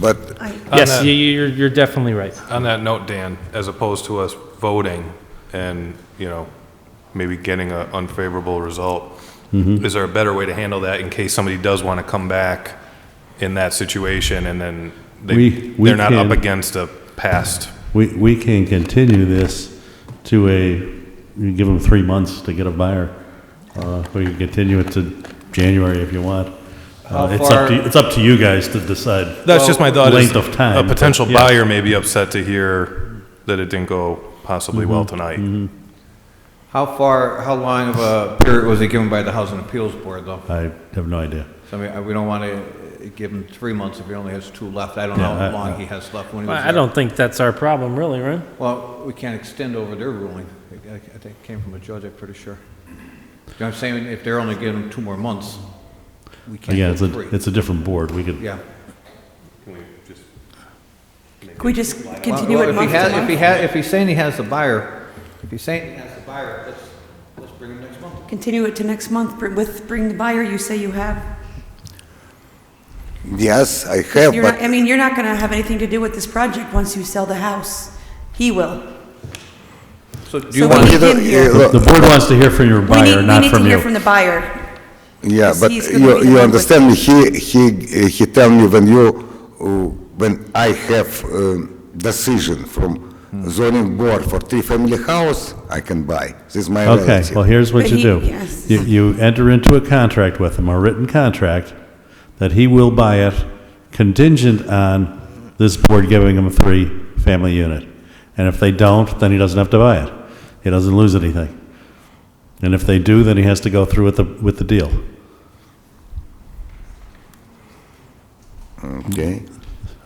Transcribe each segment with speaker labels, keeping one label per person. Speaker 1: But
Speaker 2: On
Speaker 3: Yes,
Speaker 2: that-
Speaker 3: you- you're, you're definitely right.
Speaker 2: On that note, Dan, as opposed to us voting and, you know, maybe getting an unfavorable result, is there a better way to handle that in case somebody does want to come back in that situation and then they,
Speaker 4: We- we
Speaker 2: they're not up
Speaker 4: can-
Speaker 2: against a past?
Speaker 4: We, we can continue this to a, you give them three months to get a buyer. Uh, We can continue it to January if you want. Uh,
Speaker 5: How
Speaker 4: It's up
Speaker 5: far-
Speaker 4: to, it's up to you guys to decide.
Speaker 2: That's just my thought. is
Speaker 4: Length of time,
Speaker 2: A potential
Speaker 4: but yeah.
Speaker 2: buyer may be upset to hear that it didn't go possibly well
Speaker 4: Mm-hmm.
Speaker 2: tonight.
Speaker 5: How far, how long of a period was it given by the Housing Appeals Board, though?
Speaker 4: I have no idea.
Speaker 5: So, I mean, I- we don't want to give him three months if he only has two left. I don't know
Speaker 4: Yeah,
Speaker 5: how
Speaker 4: I-
Speaker 5: long he has left when he was
Speaker 3: I I
Speaker 5: there.
Speaker 3: don't think that's our problem, really, right?
Speaker 5: Well, we can't extend over their ruling. I I think it came from a judge, I'm pretty sure. You know what I'm saying? If they're only giving him two more months, we can't
Speaker 4: Again,
Speaker 5: give
Speaker 4: it's
Speaker 5: him
Speaker 4: a,
Speaker 5: three.
Speaker 4: it's a different board. We could,
Speaker 5: Yeah.
Speaker 6: Could we just continue
Speaker 5: Well,
Speaker 6: it
Speaker 5: if he
Speaker 6: month
Speaker 5: has,
Speaker 6: to
Speaker 5: if he
Speaker 6: month?
Speaker 5: has, if he's saying he has the buyer, if he's saying he has the buyer, let's, let's bring him next month.
Speaker 6: Continue it to next month br- with, bring the buyer you say you have.
Speaker 1: yes, I have,
Speaker 6: You're not,
Speaker 1: but
Speaker 6: I mean, you're not gonna have anything to do with this project once you sell the house. He will.
Speaker 5: So do
Speaker 6: So
Speaker 5: you
Speaker 6: we
Speaker 5: want,
Speaker 6: need
Speaker 1: You uh, don't-
Speaker 6: him
Speaker 1: you-
Speaker 6: here.
Speaker 4: the board wants to hear from your
Speaker 6: We
Speaker 4: buyer,
Speaker 6: need, we
Speaker 4: not
Speaker 6: need to
Speaker 4: from
Speaker 6: hear
Speaker 4: you.
Speaker 6: from the buyer.
Speaker 1: yeah,
Speaker 6: Because
Speaker 1: but
Speaker 6: he's gonna be
Speaker 1: you,
Speaker 6: the
Speaker 1: you
Speaker 6: one
Speaker 1: understand me, he, he, uh, he tell me when you, uh, when I have um, decision from zoning board for three-family house, I can buy. This is my
Speaker 4: Okay,
Speaker 1: relative.
Speaker 4: well, here's what
Speaker 6: But
Speaker 4: you
Speaker 6: he-
Speaker 4: do.
Speaker 6: yes.
Speaker 4: You, you enter into a contract with him, a written contract, that he will buy it contingent on this board giving him a three-family unit. And if they don't, then he doesn't have to buy it. He doesn't lose anything. And if they do, then he has to go through with the, with the deal.
Speaker 1: Okay,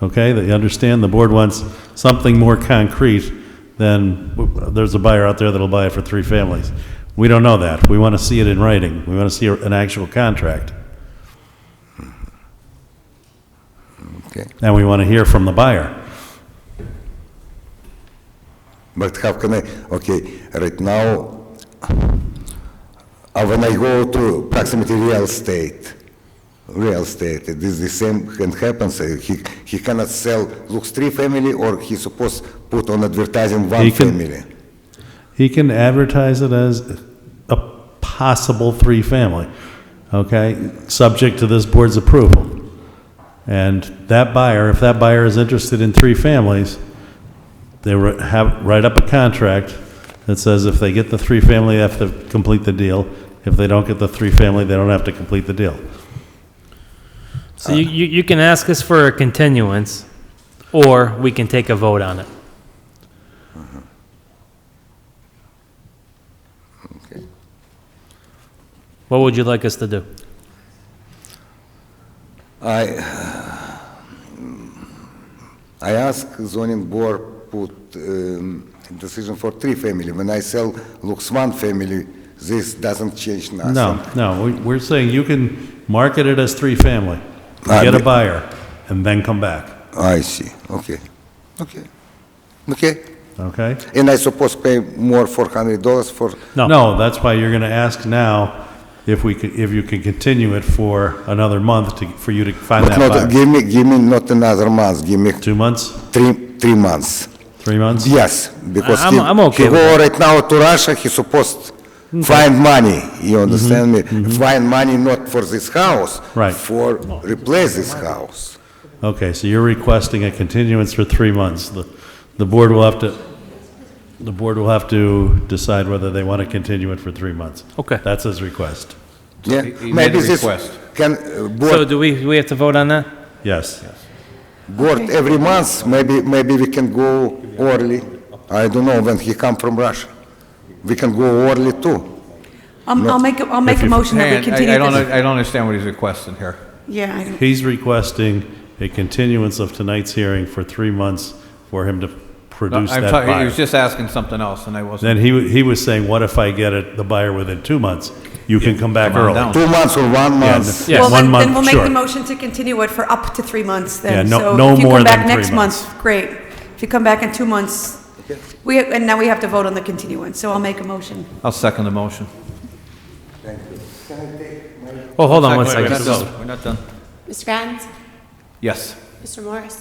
Speaker 4: Okay, that you understand, the board wants something more concrete than, w- there's a buyer out there that'll buy it for three families. We don't know that. We want to see it in writing. We want to see a- an actual contract.
Speaker 1: okay.
Speaker 4: And we want to hear from the buyer.
Speaker 1: But how can I, okay, right now, uh, when I go to proximity real estate, real estate, it is the same can happen, so he, he cannot sell looks three family or he supposed put on advertising one
Speaker 4: He can-
Speaker 1: family.
Speaker 4: He can advertise it as a possible three-family, okay? Subject to this board's approval. And that buyer, if that buyer is interested in three families, they wri- have, write up a contract that says if they get the three-family, they have to complete the deal. If they don't get the three-family, they don't have to complete the deal.
Speaker 3: So you, you, you can ask us for a continuance, or we can take a vote on it. What would you like us to do?
Speaker 1: I, I ask zoning board put um, decision for three family. When I sell looks one family, this doesn't change nothing.
Speaker 4: No, no, we- we're saying you can market it as three-family,
Speaker 1: Uh,
Speaker 4: get a
Speaker 1: we-
Speaker 4: buyer, and then come back,
Speaker 1: I see, okay, okay, okay.
Speaker 4: okay?
Speaker 1: And I suppose pay more four hundred dollars for,
Speaker 4: No, that's why you're going to ask now if we could, if you can continue it for another month to, for you to find
Speaker 1: but
Speaker 4: that
Speaker 1: not,
Speaker 4: buyer.
Speaker 1: give me, give me not another month, give me
Speaker 4: Two months,
Speaker 1: three, three months.
Speaker 4: three months?
Speaker 1: Yes, because
Speaker 3: I'm-
Speaker 1: he,
Speaker 3: I'm okay
Speaker 1: he
Speaker 3: with Mm-hmm.
Speaker 1: go right now to Russia, he supposed find money, you understand me? Find money not for this house.
Speaker 4: Right.
Speaker 1: For replace this house.
Speaker 4: Okay, so you're requesting a continuance for three months. The, the board will have to, the board will have to decide whether they want to continue it for three months.
Speaker 3: Okay.
Speaker 4: That's his request.
Speaker 1: Yeah,
Speaker 5: he- he made
Speaker 1: maybe
Speaker 5: a
Speaker 1: this
Speaker 5: request.
Speaker 1: can, uh,
Speaker 3: So
Speaker 1: board,
Speaker 3: do we, do we have to vote on that?
Speaker 4: Yes.
Speaker 1: board every month, maybe, maybe we can go early. I don't know, when he come from Russia, we can go early too.
Speaker 6: Um, I'll make, a- I'll make a
Speaker 4: you-
Speaker 6: motion that we
Speaker 5: Hang on,
Speaker 6: continue
Speaker 5: I I don't,
Speaker 6: this.
Speaker 5: I don't understand what he's requesting here.
Speaker 6: Yeah, I don't-
Speaker 4: He's requesting a continuance of tonight's hearing for three months for him to
Speaker 5: No,
Speaker 4: produce
Speaker 5: I'm
Speaker 4: that
Speaker 5: talking- He
Speaker 4: buyer.
Speaker 5: was just asking something else, and I wasn't.
Speaker 4: Then he, wa- he was saying, what if I get it, the buyer within two months? You can come back
Speaker 5: Come on
Speaker 4: early.
Speaker 5: down.
Speaker 1: Two months or one month?
Speaker 4: Yeah, one
Speaker 6: well, then, then
Speaker 4: month,
Speaker 6: we'll make
Speaker 4: sure.
Speaker 6: the motion to continue it for up to three months
Speaker 4: Yeah,
Speaker 6: then.
Speaker 4: no- no more
Speaker 6: So if you come back
Speaker 4: than three
Speaker 6: next
Speaker 4: months.
Speaker 6: month, great. If you come back in two months, we, and now we have to vote on the continuance, so I'll make a motion.
Speaker 5: I'll second the motion.
Speaker 3: Oh, hold on one second.
Speaker 5: Second- We're not done. We're not done.
Speaker 7: Mr. Grant,
Speaker 5: Yes.
Speaker 7: Mr. Morris.